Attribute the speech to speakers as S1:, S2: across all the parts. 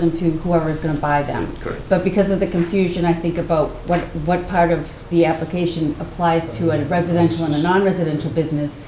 S1: them to whoever's going to buy them.
S2: Mm, Correct.
S1: But because of the confusion, I think about what, what part of the application applies to a residential and a non-residential business,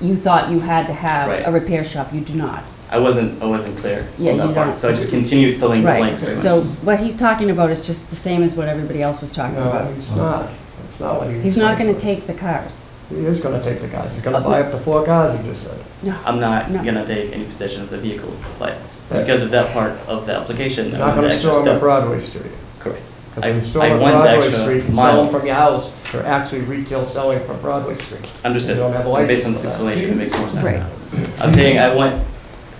S1: you thought you had to have
S2: Right.
S1: a repair shop, you do not.
S2: I wasn't, I wasn't clear
S1: Yeah,
S2: on
S1: you
S2: that part,
S1: don't.
S2: so I just continued filling the
S1: Right,
S2: blanks very much.
S1: so what he's talking about is just the same as what everybody else was talking
S3: No,
S1: about.
S3: it's not. It's not what he's.
S1: He's not going to take the cars.
S3: He is gonna take the cars. He's gonna buy up to four cars, he just said.
S1: No,
S2: I'm not
S1: No.
S2: gonna take any possession of the vehicles, like,
S3: Yeah.
S2: because of that part of the application.
S3: You're
S2: I
S3: not
S2: went
S3: gonna
S2: the extra
S3: store them on
S2: step.
S3: Broadway Street.
S2: Correct.
S3: Because
S2: I-
S3: if you store
S2: I
S3: them on
S2: went the
S3: Broadway
S2: extra
S3: Street and sell
S2: mile.
S3: them from your house, they're actually retail selling from Broadway Street.
S2: Understood.
S3: You don't have a
S2: And Based on
S3: license
S2: this
S3: for that.
S2: explanation, it makes more sense
S1: Right.
S2: now. I'm saying I went,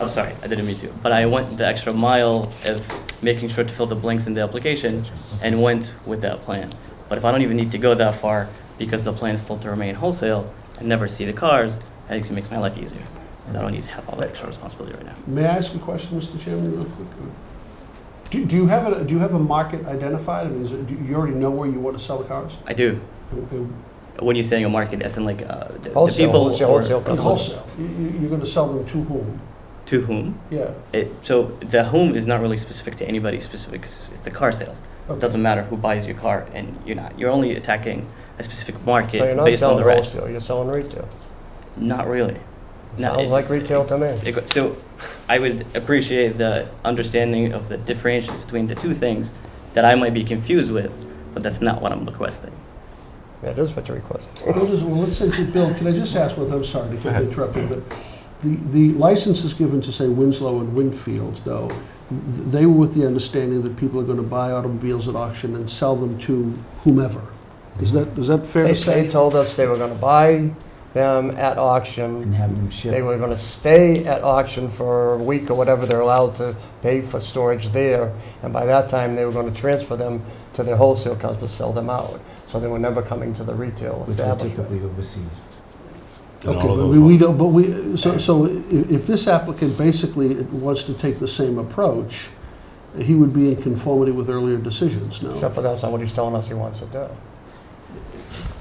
S2: I'm sorry, I didn't mean to, but I went the extra mile of making sure to fill the blanks in the application and went with that plan. But if I don't even need to go that far, because the plan is still to remain wholesale and never see the cars, that actually makes my life easier. And I don't need to have all that extra responsibility right now.
S4: May I ask a question, Mr. Chairman, real quick? Do, do you have a, do you have a market identified? I mean, is it, do you already know where you want to sell the cars?
S2: I do.
S4: In- in-
S2: When you're saying a market, as in like uh, the- the
S3: Wholesale,
S2: people
S3: wholesale,
S2: or-
S3: wholesale
S4: In
S3: customers.
S4: wholesale? You, you- you're going to sell them to whom?
S2: to whom?
S4: Yeah.
S2: It, so the whom is not really specific to anybody specific. 'cause It's, it's the car sales. It
S4: Okay.
S2: doesn't matter who buys your car, and you're not. You're only attacking a specific market
S3: So you're not
S2: based on
S3: selling
S2: the rest.
S3: wholesale, you're selling retail.
S2: Not really. No,
S3: Sounds
S2: it's-
S3: like retail to me.
S2: It go- So I would appreciate the understanding of the differentiation between the two things that I might be confused with, but that's not what I'm requesting.
S3: That is what you're requesting.
S4: Well, listen, well, let's say, to Bill, can I just ask one, I'm sorry to keep interrupting, but the, the license is given to, say, Winslow and Winfield, though. They were with the understanding that people are going to buy automobiles at auction and sell them to whomever. Is that, is that fair
S3: They,
S4: to say?
S3: they told us they were gonna buy them at auction.
S5: and have them
S3: They
S5: shipped.
S3: were gonna stay at auction for a week or whatever they're allowed to pay for storage there. And by that time, they were gonna transfer them to their wholesale customers, sell them out. So they were never coming to the retail
S5: Which are
S3: establishment.
S5: typically overseas.
S4: Okay, but we, we don't, but we, so, so i- if this applicant basically wants to take the same approach, he would be in conformity with earlier decisions, no?
S3: Except for that's not what he's telling us he wants to do.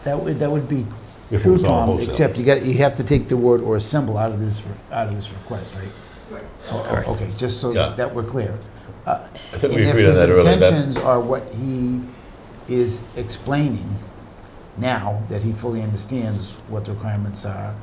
S5: That would, that would be
S6: If it
S5: true,
S6: was all
S5: Tom,
S6: wholesale.
S5: except you got, you have to take the word or assemble out of this, re- out of this request, right? Oh, oh,
S2: Correct.
S5: Okay, just so
S6: Yeah.
S5: that we're clear. I
S6: I think we agreed on that
S5: And if
S6: earlier.
S5: his
S6: That-
S5: intentions are what he is explaining now, that he fully understands what the requirements are,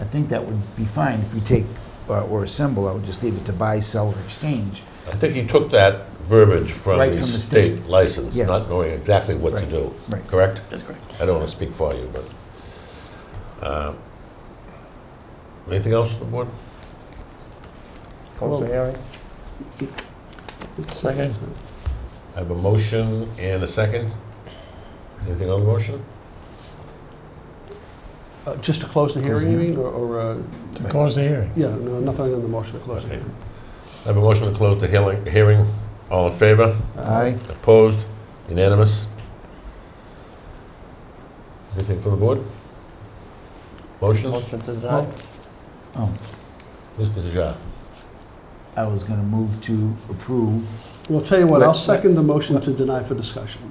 S5: I think that would be fine if we take uh, or assemble, I would just leave it to buy, sell, or exchange.
S6: I think he took that verbiage from
S5: Right
S6: the
S5: from the
S6: state license,
S5: Yes.
S6: not knowing exactly what to
S5: Right.
S6: do,
S5: Right.
S6: correct?
S2: That's correct.
S6: I don't want to speak for you, but. uh, Anything else on the board?
S3: Close the hearing.
S4: Second.
S6: I have a motion and a second. Anything on the motion?
S4: Uh, just to close the
S5: Close the
S4: hearing, you mean, or, or, uh,
S5: To close the hearing.
S4: yeah, no, nothing on the motion to close the hearing.
S6: I have a motion to close the hearing- hearing. All in favor?
S5: Aye.
S6: Opposed? Unanimous? Anything for the board? Motions?
S3: Motion to deny.
S5: Oh,
S6: Mr. Deja.
S5: I was going to move to approve
S4: Well, tell you what, I'll
S5: Let-
S4: second the motion to deny for discussion.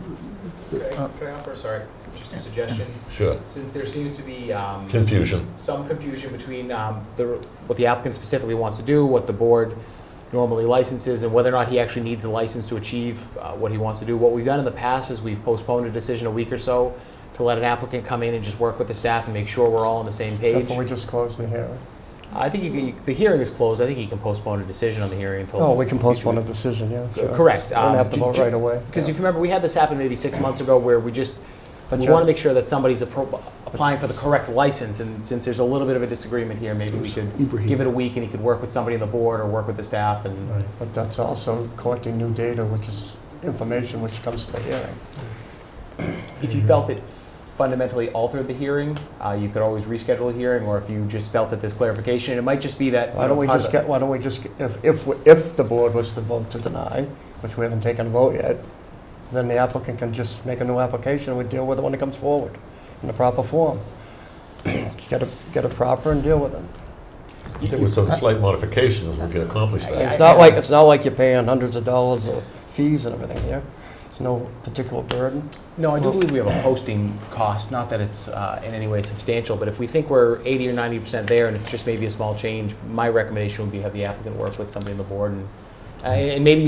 S5: Uh,
S7: Can I offer, sorry, just a suggestion?
S6: Sure.
S7: Since there seems to be um,
S6: Confusion.
S7: some confusion between um, the- what the applicant specifically wants to do, what the board normally licenses, and whether or not he actually needs a license to achieve uh, what he wants to do. What we've done in the past is we've postponed a decision a week or so to let an applicant come in and just work with the staff and make sure we're all on the same
S3: Except
S7: page.
S3: for we just closed the hearing.
S7: I think you can- you- the hearing is closed. I think he can postpone a decision on the hearing until.
S3: No, Oh, we can postpone a decision, yeah. sure.
S7: Correct.
S3: We don't have to
S7: Um,
S3: vote
S7: ju-
S3: right away.
S7: Because
S3: Yeah.
S7: if you remember, we had this happen maybe six months ago where we just,
S3: But
S7: we
S3: you're-
S7: want to make sure that somebody's appro- applying for the correct license, and since there's a little bit of a disagreement here, maybe we could
S4: Ibrahim.
S7: give it a week, and he could work with somebody on the board or work with the staff, and
S3: But that's also collecting new data, which is information which comes to the hearing.
S7: if
S3: Mm-hmm.
S7: you felt it fundamentally altered the hearing, uh, you could always reschedule a hearing, or if you just felt that this clarification, and it might just be that. you
S3: Why don't
S7: know,
S3: we
S7: part of
S3: just
S7: the-
S3: get, why don't we just, get- if, if, we- if the board was to vote to deny, which we haven't taken a vote yet, then the applicant can just make a new application, and we deal with it when it comes forward, in the proper form. Get it, get it proper and deal with it.
S6: I think with some slight modifications, we can accomplish that.
S3: It's not like, it's not like you're paying hundreds of dollars of fees and everything here. There's no particular burden.
S7: No, I do believe we have a posting cost, not that it's uh, in any way substantial, but if we think we're 80 or 90% there and it's just maybe a small change, my recommendation would be have the applicant work with somebody on the board and, uh, and maybe